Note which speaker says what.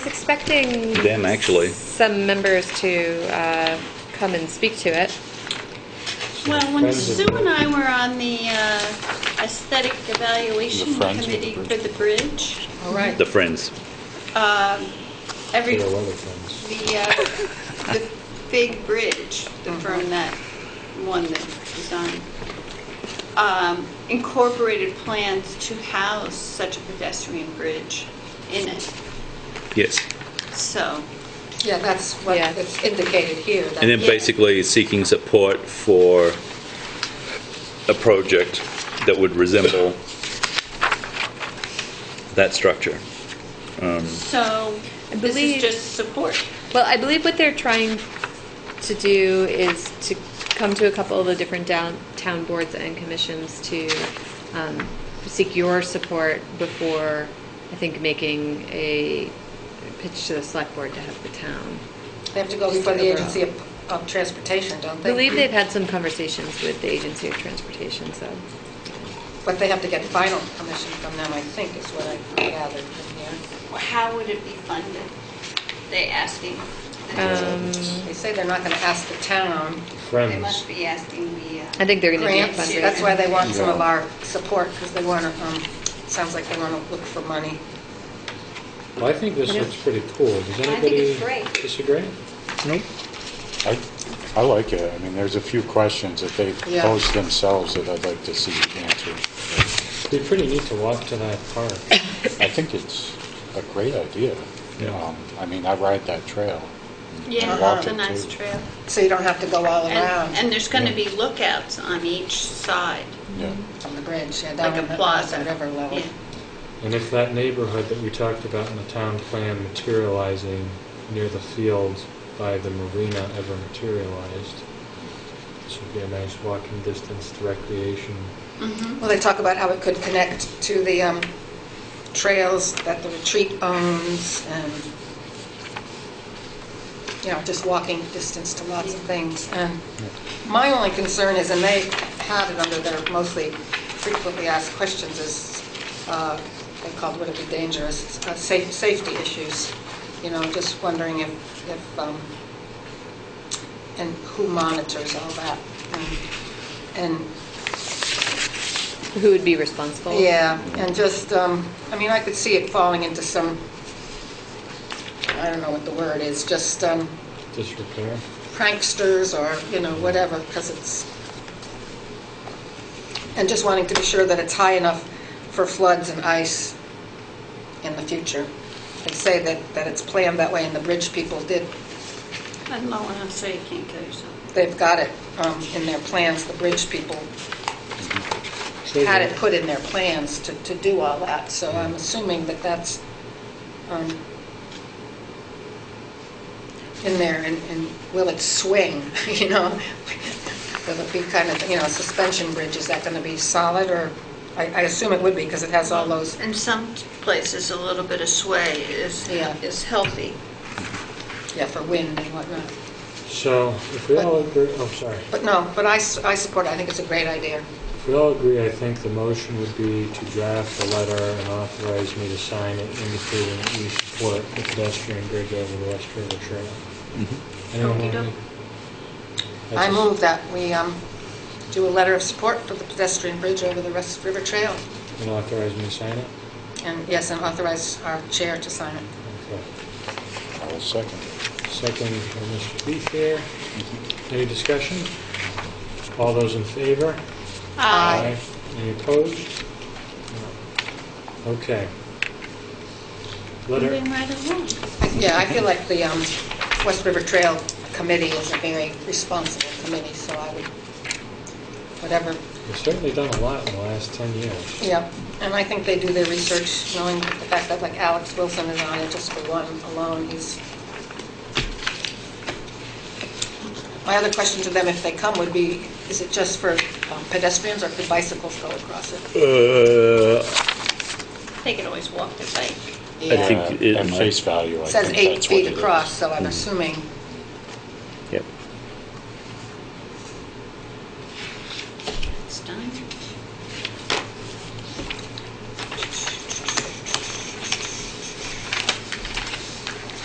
Speaker 1: was expecting
Speaker 2: Them, actually.
Speaker 1: some members to uh, come and speak to it.
Speaker 3: Well, when
Speaker 4: Friends of
Speaker 3: Sue
Speaker 4: the-
Speaker 3: and I were on the uh, aesthetic evaluation
Speaker 5: The Friends of
Speaker 3: committee
Speaker 5: the
Speaker 3: for
Speaker 5: Bridge.
Speaker 3: the bridge,
Speaker 6: All right.
Speaker 2: The friends.
Speaker 3: um, every,
Speaker 4: There are
Speaker 3: the,
Speaker 4: other things.
Speaker 3: uh, the big bridge, the
Speaker 1: Uh-huh.
Speaker 3: firm that, one that designed, um, incorporated plans to house such a pedestrian bridge in it,
Speaker 2: Yes.
Speaker 3: so.
Speaker 6: Yeah, that's what
Speaker 1: Yeah.
Speaker 6: it's indicated here. that-
Speaker 2: And then
Speaker 3: Yeah.
Speaker 2: basically seeking support for a project that would resemble that structure.
Speaker 3: So
Speaker 1: I
Speaker 3: this
Speaker 1: believe-
Speaker 3: is just support.
Speaker 1: Well, I believe what they're trying to do is to come to a couple of the different down, town boards and commissions to um, seek your support before, I think, making a pitch to the select board to have the town.
Speaker 6: They have to go before the Agency of of Transportation, don't
Speaker 1: I
Speaker 6: they?
Speaker 1: believe they've had some conversations with the Agency of Transportation, so.
Speaker 6: But they have to get final permission from them, I think, is what I gathered from
Speaker 3: Mm-hmm.
Speaker 6: here.
Speaker 3: How would it be funded? They asking,
Speaker 1: Um,
Speaker 6: They say they're not going to ask the town
Speaker 3: they
Speaker 4: Friends.
Speaker 3: must be asking the. uh,
Speaker 1: I think they're going to do a
Speaker 6: grants.
Speaker 1: fundraiser.
Speaker 6: That's why they want some of our support, because they want to, sounds like they want to look for money.
Speaker 4: Well, I think this
Speaker 1: Yeah.
Speaker 4: looks pretty cool. Does
Speaker 3: think
Speaker 4: anybody
Speaker 3: it's great.
Speaker 4: disagree?
Speaker 2: Nope.
Speaker 5: I, I like it. I mean, there's a few questions that they
Speaker 6: Yeah.
Speaker 5: pose themselves that I'd like to see answered.
Speaker 4: It'd be pretty neat to walk to that park.
Speaker 5: I think it's a great idea.
Speaker 4: Yeah.
Speaker 5: Um, I mean, I ride that trail.
Speaker 3: Yeah,
Speaker 6: walk
Speaker 3: it's a
Speaker 5: it,
Speaker 3: nice
Speaker 5: too.
Speaker 3: trail.
Speaker 6: So you don't have to go all
Speaker 3: And, and
Speaker 6: around
Speaker 3: there's going to be lookouts on each side,
Speaker 5: Yeah.
Speaker 6: on the bridge, yeah, down
Speaker 3: like
Speaker 6: on
Speaker 3: a
Speaker 6: the
Speaker 3: plaza.
Speaker 6: on the river level.
Speaker 3: Yeah.
Speaker 4: And if that neighborhood that we talked about in the town plan materializing near the field by the marina ever materialized, this would be a nice walking distance to recreation.
Speaker 3: Mm-hmm.
Speaker 6: Well, they talk about how it could connect to the um, trails that the retreat owns and, you know, just walking distance to lots of things. And my only concern is, and they had it under their mostly frequently asked questions, is uh, they called would it be dangerous, It's, uh, sa- safety issues. You know, just wondering if, if, um, and who monitors all that? And and
Speaker 1: Who would be responsible?
Speaker 6: yeah, and just, um, I mean, I could see it falling into some, I don't know what the word is, just um,
Speaker 4: Disrepair?
Speaker 6: pranksters or, you know, whatever, because it's, and just wanting to be sure that it's high enough for floods and ice in the future. They say that, that it's planned that way, and the bridge people did,
Speaker 3: I'm low enough so you can't kill yourself.
Speaker 6: they've got it um, in their plans, the bridge people had it put in their plans to, to do all that, so I'm assuming that that's um, in there, and, and will it swing, you know? Will it be kind of, you know, suspension bridge, is that going to be solid, or, I, I assume it would be, because it has all those,
Speaker 3: In some places, a little bit of sway is,
Speaker 6: Yeah.
Speaker 3: is healthy.
Speaker 6: yeah, for wind and whatnot.
Speaker 4: So if we all agree, oh, sorry.
Speaker 6: But no, but I, s- I support it, I think it's a great idea.
Speaker 4: If we all agree, I think the motion would be to draft a letter and authorize me to sign it indicating that we support the pedestrian bridge over the West River Trail. Anyone want
Speaker 3: Okey-doke.
Speaker 4: any-
Speaker 6: I
Speaker 4: That's-
Speaker 6: move that we um, do a letter of support for the pedestrian bridge over the West River Trail,
Speaker 4: And authorize me to sign it?
Speaker 6: and, yes, and authorize our chair to sign it.
Speaker 4: Okay.
Speaker 5: I will second.
Speaker 4: Second from Mr. Beefair. Any discussion? All those in favor?
Speaker 6: Aye.
Speaker 4: Any opposed? No. Okay. Letter,
Speaker 3: Moving right along.
Speaker 6: Yeah, I feel like the um, West River Trail Committee is a very responsible committee, so I would, whatever,
Speaker 4: we've certainly done a lot in the last 10 years.
Speaker 6: yeah. And I think they do their research, knowing the fact that like Alex Wilson is on it just for one alone, he's... My other question to them, if they come, would be, is it just for um, pedestrians or could bicycles go across it?
Speaker 2: Uh,
Speaker 3: They could always walk their bike.
Speaker 2: I think
Speaker 5: Uh,
Speaker 2: it
Speaker 5: At
Speaker 2: might-
Speaker 5: face value, I
Speaker 6: It says
Speaker 5: think
Speaker 6: eight
Speaker 5: that's what
Speaker 6: feet
Speaker 5: it is.
Speaker 6: across, so I'm assuming